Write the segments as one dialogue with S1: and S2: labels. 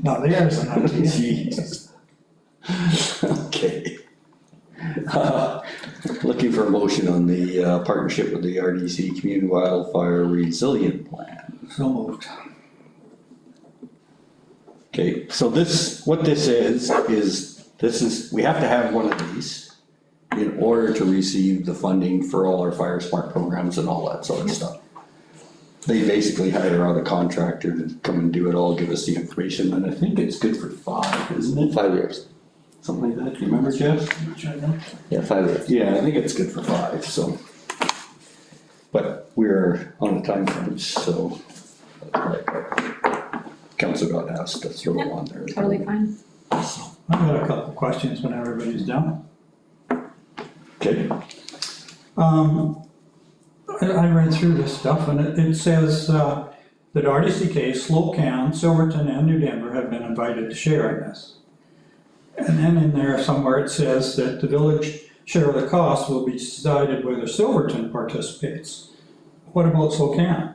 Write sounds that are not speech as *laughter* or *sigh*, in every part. S1: No, theirs are
S2: *laughs*
S1: not to you.
S2: Jeez. *laughs* Okay. Uh, Looking for a motion on the uh, partnership with the RDC Community Wildfire Resilient Plan.
S1: So moved.
S2: Okay, so this, what this is, is this is, we have to have one of these in order to receive the funding for all our fire smart programs and all that sort of stuff. They basically hire out a contractor to come and do it all, give us the information, and I think it's good for five, isn't it?
S3: Five years.
S2: Something like that, do you remember, Jeff?
S1: Which I know.
S3: Yeah, five years.
S2: Yeah, I think it's good for five, so. But we're on a time frame, so. Council got asked to throw on there.
S4: Totally fine.
S1: I've got a couple of questions when everybody's done.
S2: Okay,
S1: Um, I, I read through this stuff and it, it says, uh, that RDCK, Slope County, Silverton and New Denver have been invited to share in this. And then in there somewhere it says that the village share of the cost will be decided whether Silverton participates. What about Slope County?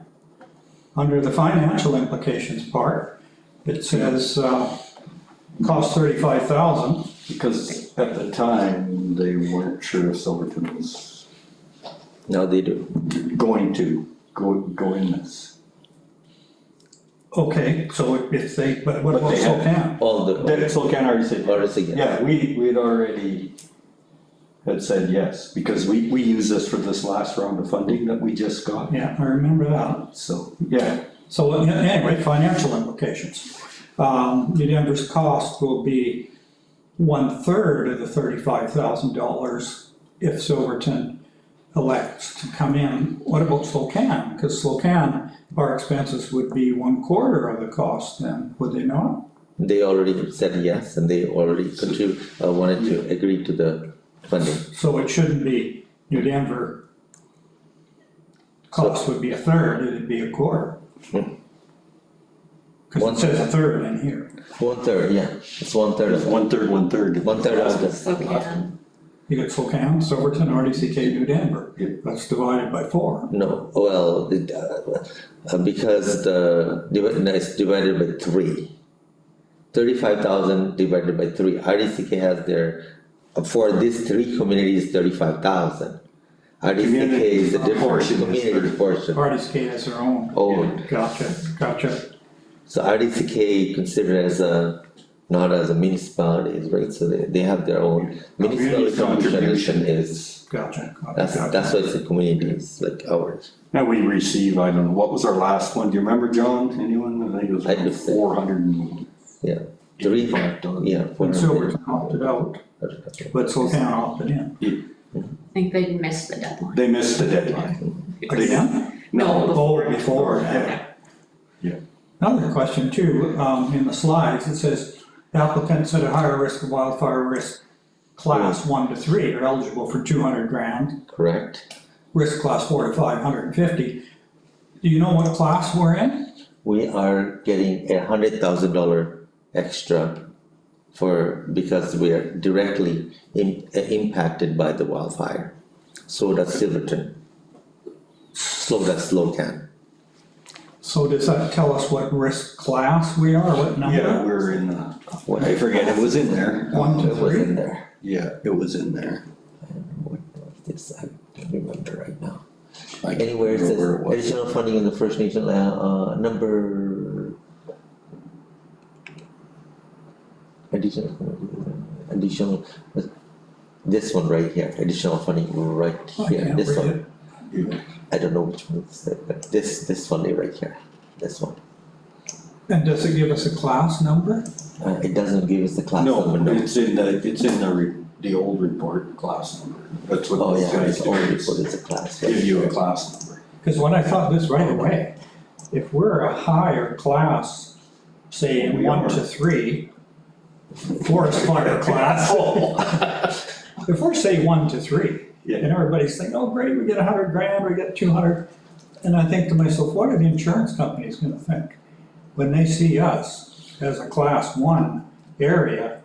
S1: Under the financial implications part, it says, uh, cost thirty-five thousand.
S2: because at the time, they weren't sure if Silverton was
S3: Now they do.
S2: going to go, go in this.
S1: Okay, so if they, but what
S2: But
S1: about
S2: they have-
S1: Spokane?
S3: All the,
S2: That Slow Can already said,
S3: or is it?
S2: yeah, we, we'd already had said yes, because we, we used this for this last round of funding that we just got,
S1: Yeah, I remember that.
S2: so, yeah.
S1: So uh, anyway, financial implications. Um, New Denver's cost will be one-third of the thirty-five thousand dollars if Silverton elects to come in. What about Spokane? Because Spokane, our expenses would be one-quarter of the cost then, would they not?
S3: They already said yes and they already contrib- uh, wanted to agree to the funding.
S1: So it shouldn't be New Denver cost would be a third, it'd be a quarter. Cause
S3: One-
S1: it says a third in here,
S3: One third, yeah, it's one third of it.
S2: One third, one third.
S3: One third of the.
S4: Slow can.
S1: you got Spokane, Silverton, RDCK, New Denver,
S2: Yep.
S1: that's divided by four.
S3: No, well, it, uh, uh, because the, divi- no, it's divided by three. Thirty-five thousand divided by three, RDCK has their, uh, for these three communities, thirty-five thousand. RDCK is a
S2: Community
S3: different
S2: portion is
S3: community
S2: thirty.
S3: portion,
S1: RDCK has their own.
S3: Own.
S1: Gotcha, gotcha,
S3: so RDCK considered as a, not as a municipality, right, so they, they have their own. Municipality contribution
S2: contribution.
S3: is,
S1: gotcha, gotcha,
S3: that's,
S1: gotcha.
S3: that's why it's a community, it's like ours,
S2: Now we receive, I don't know, what was our last one? Do you remember, John? Anyone? I think it was
S3: I
S2: around
S3: just said-
S2: four hundred and.
S3: yeah, three, yeah.
S1: When Silverton opted out, but Spokane opted in.
S4: I think they missed the deadline.
S2: They missed the deadline. They-
S1: Again?
S4: No.
S1: Forward, before, yeah.
S2: Yeah.
S1: Another question too, um, in the slides, it says applicants at a higher risk of wildfire risk class one to three are eligible for two hundred grand,
S3: Correct.
S1: risk class four to five hundred and fifty. Do you know what class we're in?
S3: we are getting a hundred thousand dollar extra for, because we are directly im- uh, impacted by the wildfire. So does Silverton. So does Slocan.
S1: So does that tell us what risk class we are, what
S2: Yeah,
S1: number?
S2: we're in the, I forget, it was in there.
S1: One to
S3: It was in
S1: three?
S3: there.
S2: Yeah, it was in there.
S3: What was this? I don't remember right now.
S2: I can't
S3: Anywhere it
S2: remember
S3: says
S2: where it was.
S3: additional funding in the First Nation, land, uh, number. Additional, additional, this one right here, additional funding right
S1: I
S3: here,
S1: can't
S3: this
S1: read
S3: one.
S1: it.
S2: Yeah.
S3: I don't know which one it's, but this, this funding right here, this one.
S1: And does it give us a class number?
S3: Uh, it doesn't give us the class
S2: No,
S3: number, no.
S2: it's in the, it's in the, re- the old report, class number. That's what
S3: Oh,
S2: these
S3: yeah,
S2: guys
S3: it's
S2: do,
S3: only
S2: is
S3: for it's a class, right?
S2: give you a class number.
S1: Cause when I thought this right away, if we're a higher class, say in
S2: We
S1: one
S2: are.
S1: to three, forest fire class. *laughs* If we're say one to three, and
S2: Yeah,
S1: everybody's thinking, oh, great, we get a hundred grand, we get two hundred. And I think to myself, what are the insurance companies gonna think when they see us as a class one area?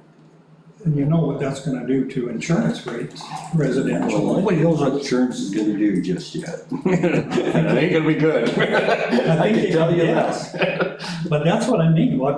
S1: And you know what that's gonna do to insurance rates,
S2: well,
S1: residential.
S2: nobody knows what insurance is gonna do just yet. It ain't gonna be good. I
S1: I
S2: can
S1: think it-
S2: tell you that.
S1: yes. But that's what I mean, what